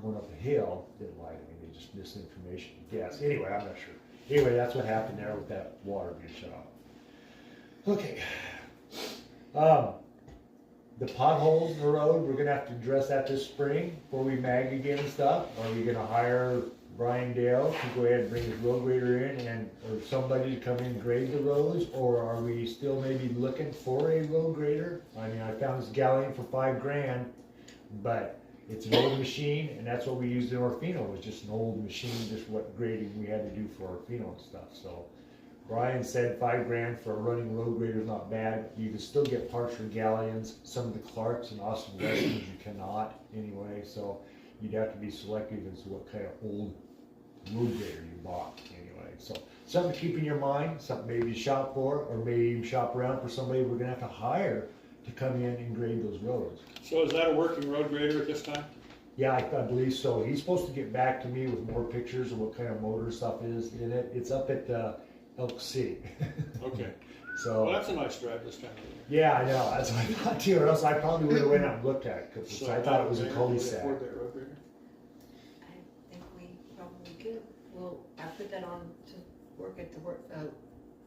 going up a hill, didn't lie to me, they just misinformation, guess, anyway, I'm not sure. Anyway, that's what happened there with that water being shut off. Okay. Um, the potholes in the road, we're gonna have to address that this spring before we mag again and stuff. Are we gonna hire Brian Dale to go ahead and bring his road grader in and, or somebody to come in and grade the roads? Or are we still maybe looking for a road grader? I mean, I found this galleon for five grand, but it's an old machine and that's what we used in Orfino, was just an old machine, just what grading we had to do for Orfino and stuff, so. Brian said five grand for a running road grader is not bad. You can still get parts for galleons. Some of the Clarks and Austin Westerns you cannot anyway, so you'd have to be selective as to what kind of old road grader you bought anyway. So something to keep in your mind, something maybe to shop for, or maybe even shop around for somebody we're gonna have to hire to come in and grade those roads. So is that a working road grader at this time? Yeah, I, I believe so. He's supposed to get back to me with more pictures of what kind of motor stuff is in it. It's up at uh, Elk City. Okay, So. well, that's a nice drive this time of Yeah, I know. That's what I thought too, or else I probably would have went out and looked at it, because year. I thought it was a So, would cul-de-sac. afford that road grader? I think we probably could, well, I put that on to work at the work, uh,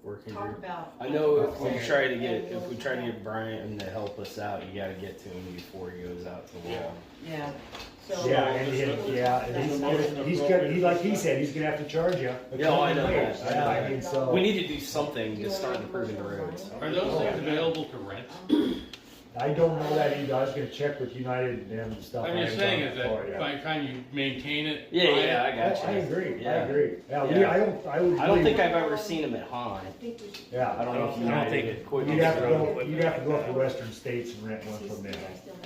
working talk group. about. I know if we Okay. try to get, And if we we'll- try to get Brian to help us out, you gotta get to him before he goes out to Yeah. lawn. Yeah, so. Yeah, and, and, yeah, and he's gonna, he's gonna, he, like he said, he's gonna have to charge you. a Yeah, oh, I ton of know ways. that. I Yeah, know I that. mean, so. We need to do something to start improving the roads. Are Oh, those things available to rent? I don't know that either. I was gonna check with United and them and stuff. I'm just I haven't saying is done it before, that yeah. by the time you maintain it. Yeah, buy it, yeah, I I, I got you. agree, I Yeah. agree. Yeah, we, Yeah. I don't, I would. I don't believe- think I've ever seen him at I Han. think we should. Yeah. I don't know if I don't United think did it- quit. You'd have to go, his you'd have to go up to western states and rent one from them.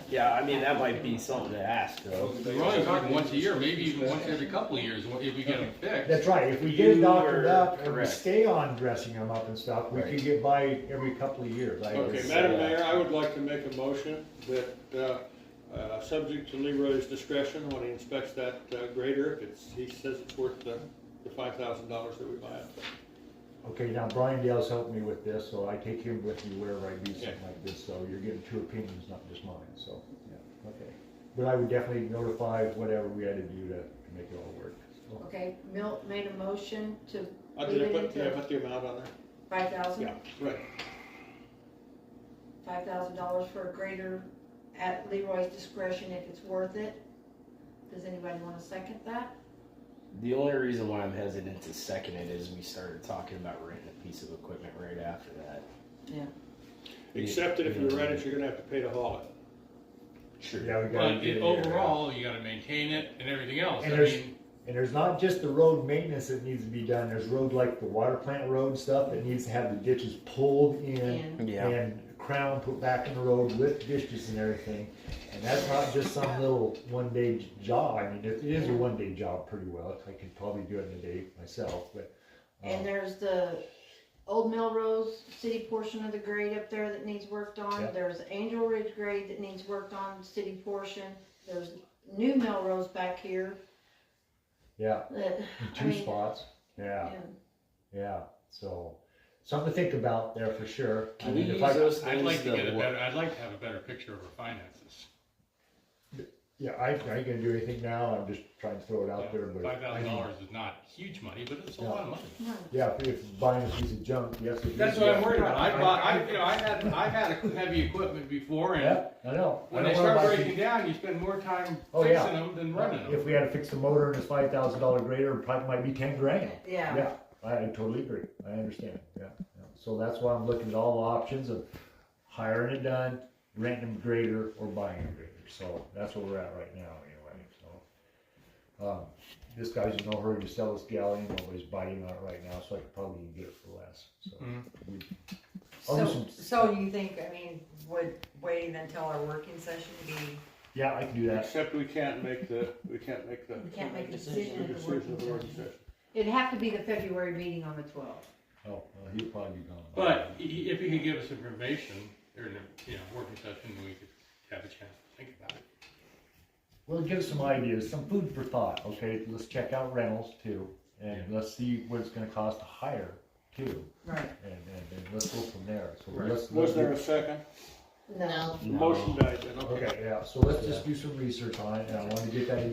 Yeah, I mean, that might be something to ask though. We're only talking once a year, maybe even once every couple of years, if we get them fixed. That's right, if we get it You doctored are up and we correct. stay on dressing them up and stuff, we Right. can get by every couple of years. I would Okay, say. Madam Mayor, I would like to make a motion that, uh, uh, subject to Leroy's discretion when he inspects that uh, grader, if it's, he says it's worth the, the five thousand dollars that we buy it. Okay, now Brian Dale's helped me with this, so I take him with me wherever I do Okay. something like this, so you're getting two opinions, not just mine, so, yeah, okay. But I would definitely notify whatever we had to do to to make it all work. so. Okay, Milt made a motion to Uh, did I Leave it put, did I until- put the amount on there? five thousand, Yeah, right. five thousand dollars for a grader at Leroy's discretion if it's worth it. Does anybody wanna second that? The only reason why I'm hesitant to second it is we started talking about renting a piece of equipment right after that. Yeah. Except that if you rent it, you're gonna have to pay to haul it. Sure. Yeah, we gotta But get it- it. overall, you gotta maintain it and everything else. And I there's- mean, And there's not just the road maintenance that needs to be done, there's road like the water plant road stuff that needs to have the ditches pulled in And Yeah. and crown put back in the road with ditches and everything. And that's not just some little one day j- job. I mean, it is a one day job pretty well. I could probably do it in a day myself, but. And um, there's the Old Melrose city portion of the grade up there that needs worked on. Yep. There's Angel Ridge grade that needs worked on, city portion. There's New Melrose back here. Yeah, that- in I two mean, spots. Yeah, yeah. yeah. So something to think about there for sure. I Can we mean, use if I, uh, those I'd like things to get a to, better, I'd like to have a better picture of our finances. yeah, I, I ain't gonna do anything now. I'm just trying to throw it out there, but. Five I thousand mean, dollars is not huge money, but it's a lot of money. No. Yeah, if- if buying a piece of junk, yes. it is, That's what I'm yeah. worried about. I I- bought, I- I, you know, I had, I've had heavy equipment before and Yeah, I know. I when don't they wanna start buy breaking down, you spend more time Oh, yeah. fixing them than running If them. we had to fix the motor and it's five thousand dollar grader, it probably might be ten grand. Yeah, Yeah, I I totally agree. I understand. Yeah. yeah. So that's why I'm looking at all options of hiring it done, renting a grader or buying a grader. So that's where we're at right now anyway. So, um, this guy's in no hurry to sell this galleon, nobody's biting on it right now, so I could probably get it for less. So, Mhm. I'll do So, some- so you think, I mean, would waiting until our working session be, yeah, I can do that. Except we can't make the, we can't make the. We can't make a the decision at the decision of the working working session. it'd have to be the February meeting on the twelfth. Oh, well, he'll probably be gone. by But i- then. if you could give us information during the, you know, working session, we could have a chance to think about it. Well, give us some ideas, some food for thought, okay? Let's check out rentals too, and let's see what it's gonna cost to hire too, right? and, and, and let's go from there. So Right. let's- Was there a second? No. Motion died then, okay. Okay, yeah, so let's just do some research on it, and I wanted to get that